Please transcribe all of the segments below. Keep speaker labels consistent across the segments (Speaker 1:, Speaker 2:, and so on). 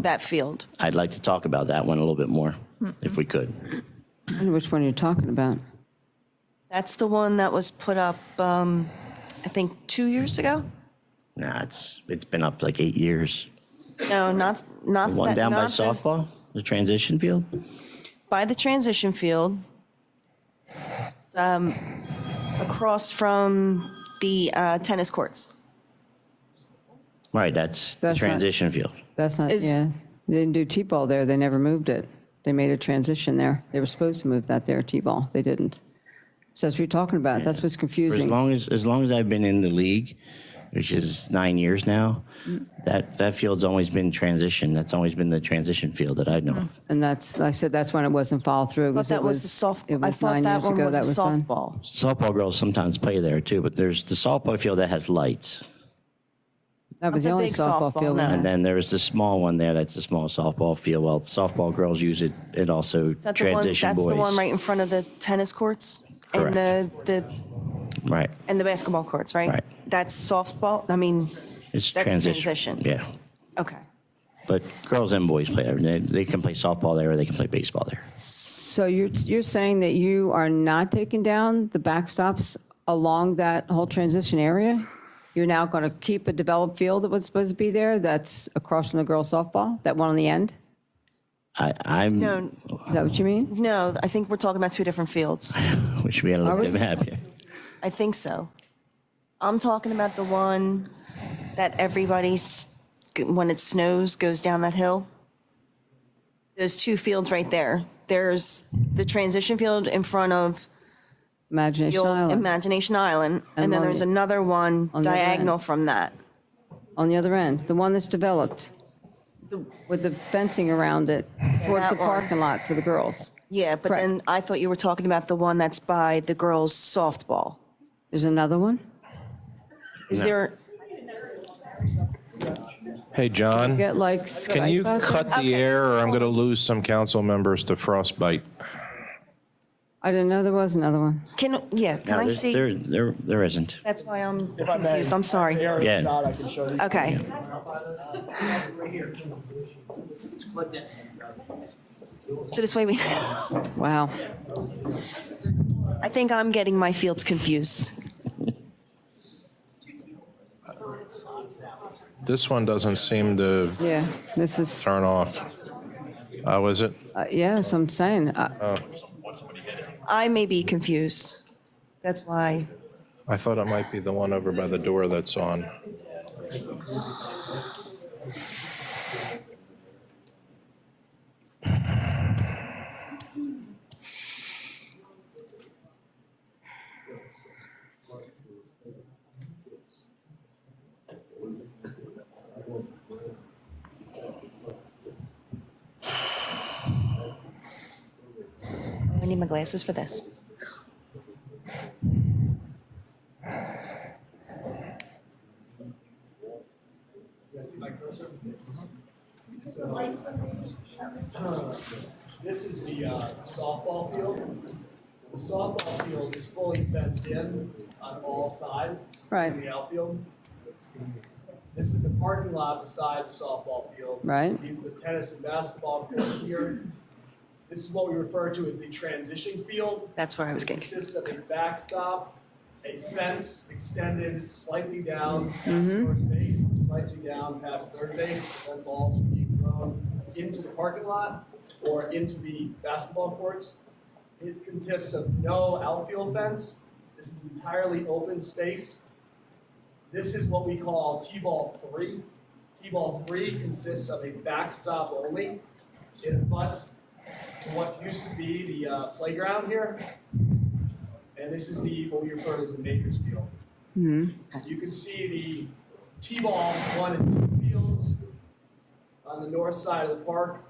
Speaker 1: that field.
Speaker 2: I'd like to talk about that one a little bit more, if we could.
Speaker 3: I don't know which one you're talking about.
Speaker 1: That's the one that was put up, um, I think, two years ago?
Speaker 2: Nah, it's, it's been up like eight years.
Speaker 1: No, not, not.
Speaker 2: The One
Speaker 1: that-
Speaker 2: down by
Speaker 1: not the-
Speaker 2: softball, the transition field?
Speaker 1: By the transition field. um, Across from the uh, tennis courts.
Speaker 2: Right, that's the
Speaker 3: That's not-
Speaker 2: transition field.
Speaker 3: That's not,
Speaker 1: Is-
Speaker 3: yeah. They didn't do T-ball there. They never moved it. They made a transition there. They were supposed to move that there, T-ball. They didn't. So that's what you're talking about. That's what's
Speaker 2: For as
Speaker 3: confusing.
Speaker 2: long as, as long as I've been in the league, which is nine years now,
Speaker 1: Mm.
Speaker 2: that, that field's always been transition. That's always been the transition field that I
Speaker 1: Mm.
Speaker 2: know of.
Speaker 3: And that's, I said, that's when it wasn't followed through.
Speaker 1: But that was the soft,
Speaker 3: It
Speaker 1: I
Speaker 3: was
Speaker 1: thought
Speaker 3: nine
Speaker 1: that
Speaker 3: years
Speaker 1: one
Speaker 3: ago
Speaker 1: was
Speaker 3: that
Speaker 1: a
Speaker 3: was done.
Speaker 1: softball.
Speaker 2: Softball girls sometimes play there too, but there's the softball field that has lights.
Speaker 3: That was
Speaker 1: Not
Speaker 3: the
Speaker 1: the
Speaker 3: only
Speaker 1: big
Speaker 3: softball
Speaker 1: softball,
Speaker 3: field. we
Speaker 1: no.
Speaker 3: had.
Speaker 2: And then there's the small one there, that's the small softball field. Well, softball girls use it, it also
Speaker 1: That's the one,
Speaker 2: transition
Speaker 1: that's the one
Speaker 2: boys.
Speaker 1: right in front of the tennis courts?
Speaker 2: Correct.
Speaker 1: And the, the,
Speaker 2: Right,
Speaker 1: and the basketball courts, right?
Speaker 2: Right.
Speaker 1: That's softball, I mean,
Speaker 2: it's
Speaker 1: That's
Speaker 2: transition.
Speaker 1: transition.
Speaker 2: Yeah,
Speaker 1: okay.
Speaker 2: but girls and boys play there. They, they can play softball there, or they can play baseball there.
Speaker 3: So you're, you're saying that you are not taking down the backstops along that whole transition area? You're now going to keep a developed field that was supposed to be there that's across from the girls softball, that one on the end?
Speaker 2: I, I'm,
Speaker 1: No,
Speaker 3: Is that what you mean?
Speaker 1: no, I think we're talking about two different fields.
Speaker 2: we should be a little
Speaker 3: Are we-
Speaker 2: bit happy.
Speaker 1: I think so. I'm talking about the one that everybody's, when it snows, goes down that hill. Those two fields right there. There's the transition field in front of the
Speaker 3: Imagination
Speaker 1: old
Speaker 3: Island,
Speaker 1: Imagination Island, and
Speaker 3: And
Speaker 1: then
Speaker 3: on
Speaker 1: there's
Speaker 3: the-
Speaker 1: another one
Speaker 3: the other
Speaker 1: diagonal
Speaker 3: end.
Speaker 1: from that.
Speaker 3: on the other end, the one that's developed with the fencing around it towards the
Speaker 1: that one.
Speaker 3: parking lot for the girls.
Speaker 1: Yeah, but
Speaker 3: Correct.
Speaker 1: then I thought you were talking about the one that's by the girls' softball.
Speaker 3: There's another one?
Speaker 1: Is
Speaker 2: No.
Speaker 1: there?
Speaker 4: Hey, John,
Speaker 3: Get like
Speaker 4: can you
Speaker 3: Skype out there?
Speaker 4: cut the air or I'm going to lose some council members to frostbite?
Speaker 3: I didn't know there was another one.
Speaker 1: Can, yeah, can
Speaker 2: No,
Speaker 1: I
Speaker 2: there's-
Speaker 1: see?
Speaker 2: There, there, there isn't.
Speaker 1: That's why I'm
Speaker 5: If I may.
Speaker 1: confused. I'm sorry.
Speaker 5: Aerial
Speaker 2: Yeah.
Speaker 5: shot, I can show you.
Speaker 1: Okay. So this way we,
Speaker 3: Wow.
Speaker 1: I think I'm getting my fields confused.
Speaker 4: This one doesn't seem to
Speaker 3: Yeah, this is,
Speaker 4: turn off. Oh, is it?
Speaker 3: uh, yes, I'm saying, uh,
Speaker 1: I may be confused. That's why.
Speaker 4: I thought it might be the one over by the door that's on.
Speaker 1: I need my glasses for this.
Speaker 5: Uh, This is the uh, softball field. The softball field is fully fenced in on all sides.
Speaker 3: Right.
Speaker 5: in The outfield. This is the parking lot beside the softball field.
Speaker 3: Right.
Speaker 5: These are the tennis and basketball fields here. This is what we refer to as the transition field.
Speaker 1: That's where I was
Speaker 5: It
Speaker 1: getting.
Speaker 5: consists of a backstop, a fence extended slightly down past
Speaker 1: Mm-hmm.
Speaker 5: first base, slightly down past third base, to prevent balls from being thrown into the parking lot or into the basketball courts. It consists of no outfield fence. This is entirely open space. This is what we call T-ball three. T-ball three consists of a backstop only. It abuts to what used to be the uh, playground here. And this is the, what we refer to as the Maker's Field. You can see the T-ball one and two fields on the north side of the park.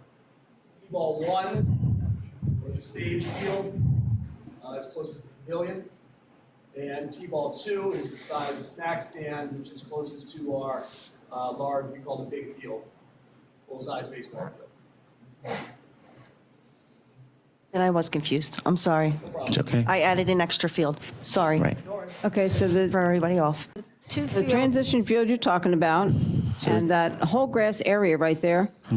Speaker 5: T-ball one, or the stage field, uh, is closest to the pavilion. And T-ball two is beside the snack stand, which is closest to our, uh, large, we call the big field, full-size baseball field.
Speaker 1: And I was confused. I'm sorry.
Speaker 2: It's okay.
Speaker 1: I added an extra field. Sorry.
Speaker 2: Right.
Speaker 3: okay, so
Speaker 1: For
Speaker 3: the,
Speaker 1: everybody off.
Speaker 3: the transition field you're talking about and that whole grass area right there,